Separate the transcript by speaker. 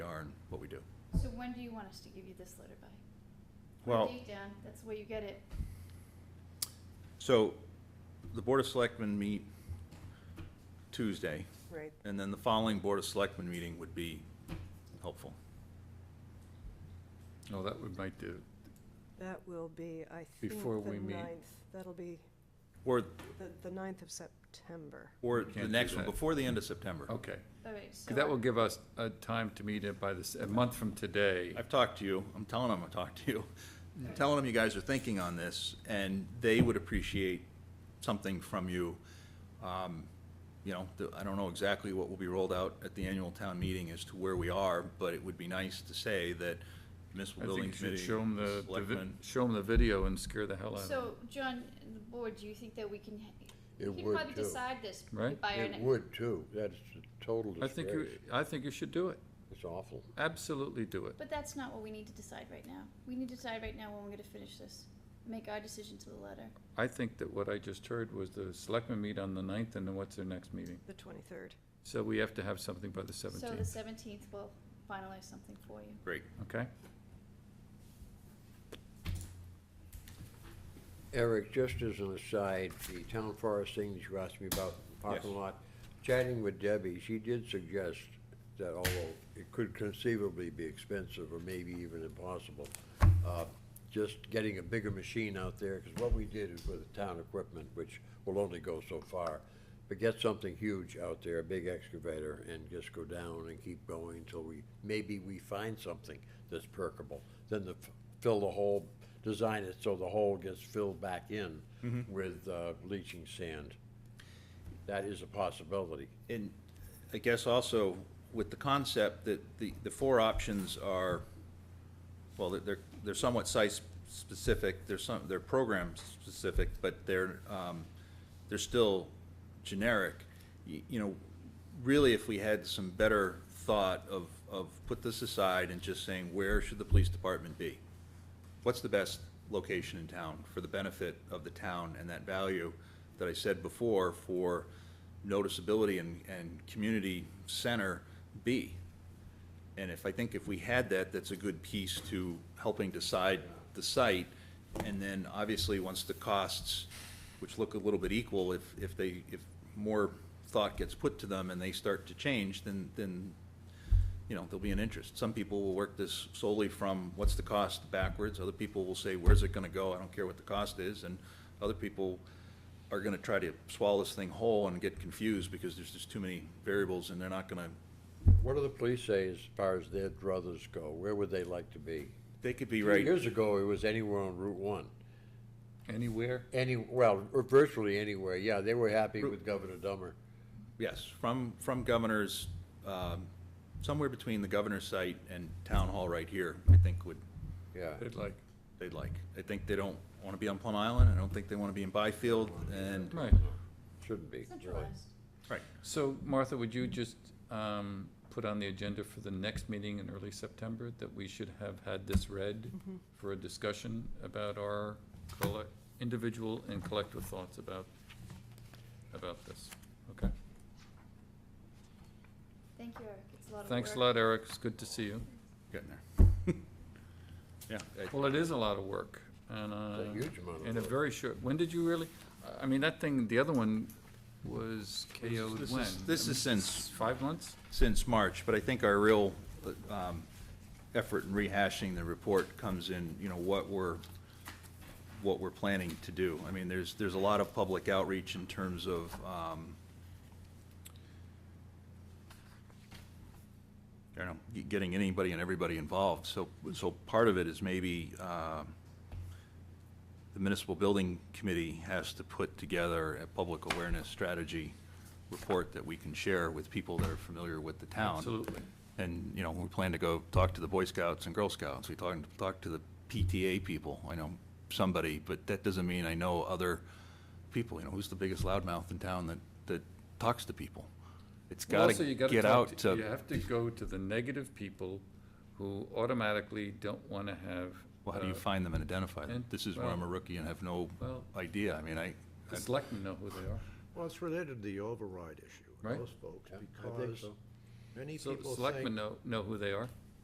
Speaker 1: what we do.
Speaker 2: So when do you want us to give you this letter by?
Speaker 1: Well.
Speaker 2: Date, Dan, that's where you get it.
Speaker 1: So the Board of Selectmen meet Tuesday,
Speaker 3: Right,
Speaker 1: and then the following Board of Selectmen meeting would be helpful.
Speaker 4: No, Oh, that would might do,
Speaker 3: that will be, I think,
Speaker 4: Before
Speaker 3: the
Speaker 4: we meet.
Speaker 3: ninth, that'll be
Speaker 1: Or,
Speaker 3: the, the ninth of September.
Speaker 1: or
Speaker 4: We can't
Speaker 1: the
Speaker 4: do
Speaker 1: next one,
Speaker 4: that.
Speaker 1: before the end of September.
Speaker 4: okay.
Speaker 2: All right, so.
Speaker 4: 'Cause that will give us a time to meet it by this, a month from today.
Speaker 1: I've talked to you, I'm telling them I talked to you, I'm telling them you guys are thinking on this, and they would appreciate something from you. Um, You know, the- I don't know exactly what will be rolled out at the annual town meeting as to where we are, but it would be nice to say that municipal
Speaker 4: I think
Speaker 1: building
Speaker 4: you should
Speaker 1: committee,
Speaker 4: show them the, the vi-
Speaker 1: selectmen.
Speaker 4: show 'em the video and scare the hell out of
Speaker 2: So,
Speaker 4: them.
Speaker 2: John, the board, do you think that we can, h-
Speaker 5: It
Speaker 2: we can
Speaker 5: would,
Speaker 2: probably
Speaker 5: too.
Speaker 2: decide this by
Speaker 4: Right?
Speaker 2: our
Speaker 5: It
Speaker 2: next.
Speaker 5: would too, that's a total
Speaker 4: I think you,
Speaker 5: disgrace,
Speaker 4: I think you should do it,
Speaker 5: it's awful.
Speaker 4: absolutely do it.
Speaker 2: But that's not what we need to decide right now. We need to decide right now when we're gonna finish this, make our decision to the letter.
Speaker 4: I think that what I just heard was the selectmen meet on the ninth, and then what's their next meeting?
Speaker 3: The twenty-third.
Speaker 4: So we have to have something by the
Speaker 2: So the
Speaker 4: seventeenth,
Speaker 2: seventeenth will finalize something for you.
Speaker 1: Great.
Speaker 4: okay?
Speaker 5: Eric, just as an aside, the town forest thing that you asked me about, the parking
Speaker 1: Yes.
Speaker 5: lot, chatting with Debbie, she did suggest that although it could conceivably be expensive or maybe even impossible, uh, just getting a bigger machine out there, because what we did is with the town equipment, which will only go so far, but get something huge out there, a big excavator, and just go down and keep going until we, maybe we find something that's perkable. Then the, fill the hole, design it so the hole gets filled back in with uh, leaching sand. That is a possibility.
Speaker 1: And I guess also with the concept that the, the four options are, well, they're, they're somewhat site-specific, they're some, they're program-specific, but they're, um, they're still generic. Y- You know, really, if we had some better thought of, of put this aside and just saying, where should the police department be? What's the best location in town for the benefit of the town and that value that I said before for noticeability and, and community center be? And if, I think if we had that, that's a good piece to helping decide the site. And then obviously, once the costs, which look a little bit equal, if, if they, if more thought gets put to them and they start to change, then, then you know, there'll be an interest. Some people will work this solely from what's the cost backwards, other people will say, where's it gonna go, I don't care what the cost is, and other people are gonna try to swallow this thing whole and get confused because there's just too many variables and they're not gonna,
Speaker 5: What do the police say as far as their druthers go? Where would they like to be?
Speaker 1: they could be
Speaker 5: Three
Speaker 1: right.
Speaker 5: Years ago, it was anywhere on Route One.
Speaker 4: Anywhere?
Speaker 5: Any, well, or virtually anywhere, yeah, they were happy with Governor Dummer.
Speaker 1: Yes, from, from governor's, um, somewhere between the governor's site and town hall right here, I think would,
Speaker 5: Yeah,
Speaker 4: They'd like,
Speaker 1: they'd like. I think they don't wanna be on Plum Island, I don't think they wanna be in Byfield, and,
Speaker 4: right.
Speaker 5: shouldn't be, really.
Speaker 2: Centralized.
Speaker 1: right,
Speaker 4: So Martha, would you just, um, put on the agenda for the next meeting in early September that we should have had this read
Speaker 2: Mm-hmm.
Speaker 4: for a discussion about our collect, individual and collective thoughts about, about this, okay?
Speaker 2: Thank you, Eric, it's a lot of work.
Speaker 4: Thanks a lot, Eric, it's good to see you.
Speaker 1: getting there. Yeah, I-
Speaker 4: Well, it is a lot of work, and, uh.
Speaker 5: It's a huge amount of
Speaker 4: In a
Speaker 5: work.
Speaker 4: very short, when did you really, I- I mean, that thing, the other one was KO'd
Speaker 1: this
Speaker 4: when?
Speaker 1: is- this
Speaker 4: I mean,
Speaker 1: is since-
Speaker 4: Five months?
Speaker 1: since March, but I think our real um, effort in rehashing the report comes in, you know, what we're, what we're planning to do. I mean, there's, there's a lot of public outreach in terms of, um, I don't know, ge- getting anybody and everybody involved. So, so part of it is maybe um, the municipal building committee has to put together a public awareness strategy report that we can share with people that are familiar with the town.
Speaker 4: Absolutely.
Speaker 1: And, you know, we plan to go talk to the Boy Scouts and Girl Scouts, we talk, talk to the PTA people, I know somebody, but that doesn't mean I know other people, you know, who's the biggest loudmouth in town that, that talks to people? It's
Speaker 4: Well,
Speaker 1: gotta
Speaker 4: also, you gotta
Speaker 1: get
Speaker 4: talk
Speaker 1: out
Speaker 4: You
Speaker 1: to,
Speaker 4: have to go to the negative people who automatically don't wanna have.
Speaker 1: well, how do you
Speaker 4: uh,
Speaker 1: find them and identify them?
Speaker 4: and-
Speaker 1: This is where I'm a
Speaker 4: well-
Speaker 1: rookie and have no
Speaker 4: Well-
Speaker 1: idea, I mean, I,
Speaker 4: The selectmen know who they are.
Speaker 6: Well, it's related to the override issue,
Speaker 4: Right.
Speaker 6: those folks,
Speaker 5: Yeah, I think
Speaker 6: because
Speaker 5: so.
Speaker 6: many
Speaker 4: So the
Speaker 6: people
Speaker 4: selectmen
Speaker 6: think,
Speaker 4: know, know who they are.